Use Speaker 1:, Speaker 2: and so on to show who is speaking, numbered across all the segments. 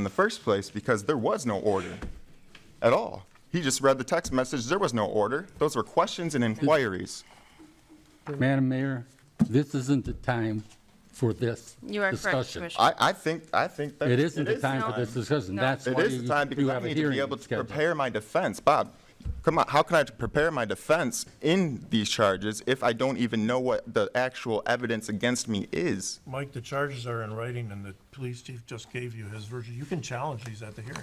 Speaker 1: in the first place because there was no order at all. He just read the text message. There was no order. Those were questions and inquiries.
Speaker 2: Mm-hmm.
Speaker 3: Madam Mayor, this isn't the time for this
Speaker 2: You are correct,
Speaker 3: discussion.
Speaker 2: Commissioner.
Speaker 1: I, I think, I think that.
Speaker 3: It isn't the
Speaker 1: it is
Speaker 3: time for this discussion.
Speaker 2: No.
Speaker 3: That's
Speaker 1: It
Speaker 3: why
Speaker 1: is the time
Speaker 3: you you
Speaker 1: because I
Speaker 3: have a
Speaker 1: need to be
Speaker 3: hearing
Speaker 1: able to
Speaker 3: scheduled.
Speaker 1: prepare my defense. Bob, come on, how can I prepare my defense in these charges if I don't even know what the actual evidence against me is?
Speaker 4: Mike, the charges are in writing and the police chief just gave you his version. You can challenge these at the hearing.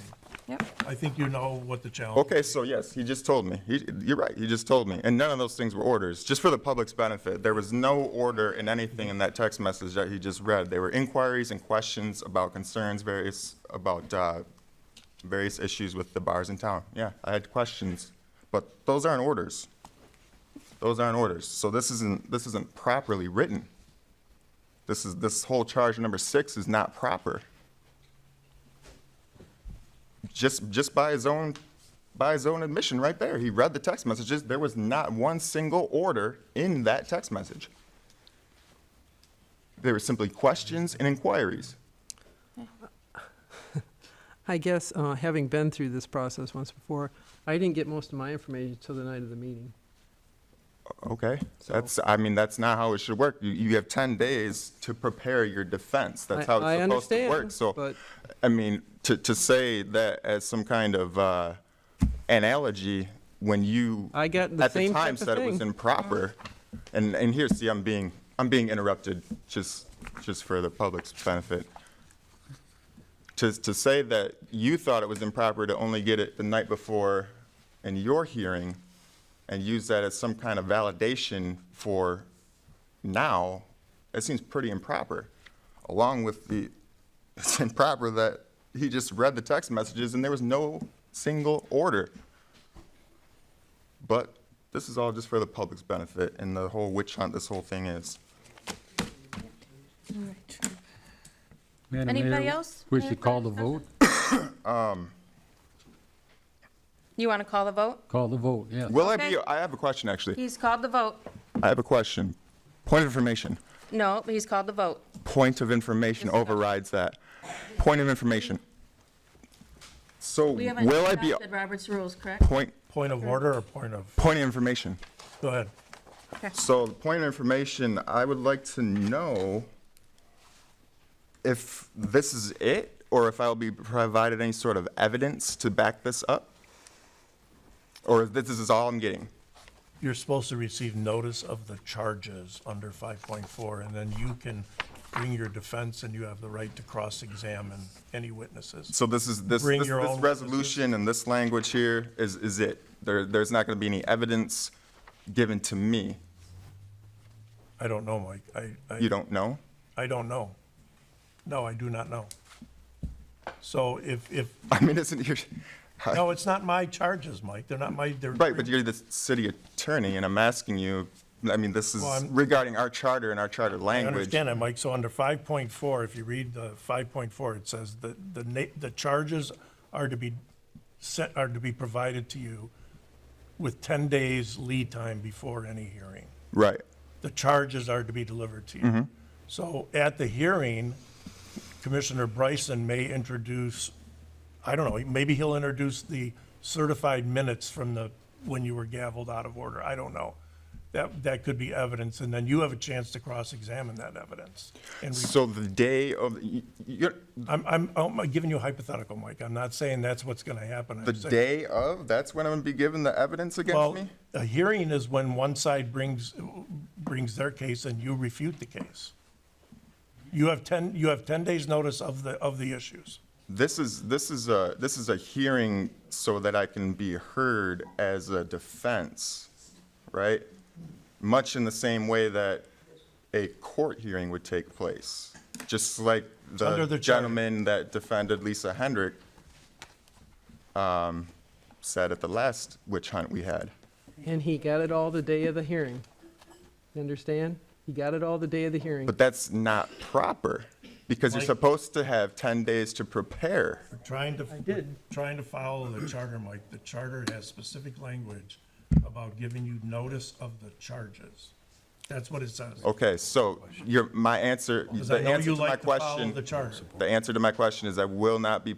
Speaker 2: Yep.
Speaker 4: I think you know what the challenge.
Speaker 1: Okay, so yes, he just told me. He, you're right, he just told me. And none of those things were orders, just for the public's benefit. There was no order in anything in that text message that he just read. They were inquiries and questions about concerns, various, about uh, various issues with the bars in town. Yeah, I had questions, but those aren't orders. Those aren't orders. So this isn't, this isn't properly written. This is, this whole charge number six is not proper just just by his own by his own admission right there he read the text messages there was not one single order in that text message they were simply questions and inquiries
Speaker 5: I guess, uh, having been through this process once before, I didn't get most of my information until the night of the meeting.
Speaker 1: okay that's i mean that's not how it should work you, you have 10 days to prepare your defense that's
Speaker 5: I-
Speaker 1: how it's
Speaker 5: I
Speaker 1: supposed to work
Speaker 5: understand,
Speaker 1: so
Speaker 5: but-
Speaker 1: i mean to, to say that as some kind of uh, analogy when you
Speaker 5: I got the
Speaker 1: at
Speaker 5: same
Speaker 1: the time
Speaker 5: type of
Speaker 1: said it was
Speaker 5: thing.
Speaker 1: improper and and here see i'm being i'm being interrupted just just for the public's benefit to, to say that you thought it was improper to only get it the night before in your hearing and use that as some kind of validation for now, it seems pretty improper. Along with the, it's improper that he just read the text messages and there was no single order. But this is all just for the public's benefit and the whole witch hunt this whole thing is.
Speaker 3: Madam
Speaker 2: Anybody
Speaker 3: Mayor,
Speaker 2: else?
Speaker 3: We
Speaker 2: Any
Speaker 3: should call the
Speaker 2: further
Speaker 3: vote,
Speaker 2: You want to call the vote?
Speaker 3: call the vote, yes.
Speaker 1: Will I
Speaker 2: Okay.
Speaker 1: be, I have a question, actually.
Speaker 2: He's called the vote.
Speaker 1: I have a question. Point of information.
Speaker 2: No, he's called the vote.
Speaker 1: point of information overrides that. Point of information. So
Speaker 2: We haven't
Speaker 1: will I be,
Speaker 2: adopted Robert's rules, correct?
Speaker 1: point,
Speaker 4: Point of order or point of,
Speaker 1: point of information.
Speaker 4: go ahead.
Speaker 1: So the point of information, I would like to know if this is it, or if I'll be provided any sort of evidence to back this up? Or if this is all I'm getting?
Speaker 4: You're supposed to receive notice of the charges under five point four and then you can bring your defense and you have the right to cross-examine any witnesses.
Speaker 1: So this is, this,
Speaker 4: Bring
Speaker 1: this,
Speaker 4: your
Speaker 1: this
Speaker 4: own
Speaker 1: resolution and this language here is, is it? There, there's not gonna be any evidence given to me.
Speaker 4: I don't know, Mike. I,
Speaker 1: You
Speaker 4: I,
Speaker 1: don't know?
Speaker 4: I don't know. No, I do not know. So if, if,
Speaker 1: I mean, isn't your,
Speaker 4: no, it's not my charges, Mike. They're not my, they're.
Speaker 1: right, but you're the city attorney, and I'm asking you, I mean, this is
Speaker 4: Well, I'm-
Speaker 1: regarding our charter and our charter
Speaker 4: I
Speaker 1: language.
Speaker 4: understand that, Mike. So under five point four, if you read the five point four, it says that the na, the charges are to be set, are to be provided to you with ten days lead time before any hearing.
Speaker 1: Right,
Speaker 4: The charges are to be delivered to
Speaker 1: Mm-hmm.
Speaker 4: you. So at the hearing, Commissioner Bryson may introduce, I don't know, maybe he'll introduce the certified minutes from the, when you were gavelled out of order. I don't know. That, that could be evidence, and then you have a chance to cross-examine that evidence. And we-
Speaker 1: so the day of, you- you're,
Speaker 4: I'm, I'm, I'm giving you a hypothetical, Mike. I'm not saying that's what's going to happen. I'm
Speaker 1: the
Speaker 4: saying-
Speaker 1: day of, that's when I'm gonna be given the evidence against
Speaker 4: Well,
Speaker 1: me?
Speaker 4: a hearing is when one side brings, brings their case and you refute the case. You have 10, you have 10 days' notice of the, of the issues.
Speaker 1: This is, this is a, this is a hearing so that I can be heard as a defense, right? Much in the same way that a court hearing would take place, just like
Speaker 4: under
Speaker 1: the
Speaker 4: the charter.
Speaker 1: gentleman that defended Lisa Hendrick um, said at the last witch hunt we had.
Speaker 5: And he got it all the day of the hearing. You understand? He got it all the day of the hearing.
Speaker 1: But that's not proper, because you're
Speaker 4: Mike.
Speaker 1: supposed to have 10 days to prepare.
Speaker 4: Trying to, trying to follow the charter, Mike. The charter has specific language about giving you notice of the charges. That's what it says.
Speaker 1: Okay, so your, my answer,
Speaker 4: Because I
Speaker 1: the
Speaker 4: know
Speaker 1: answer
Speaker 4: you
Speaker 1: to my
Speaker 4: like to follow
Speaker 1: question.
Speaker 4: the charter.
Speaker 1: The answer to my question is I will not be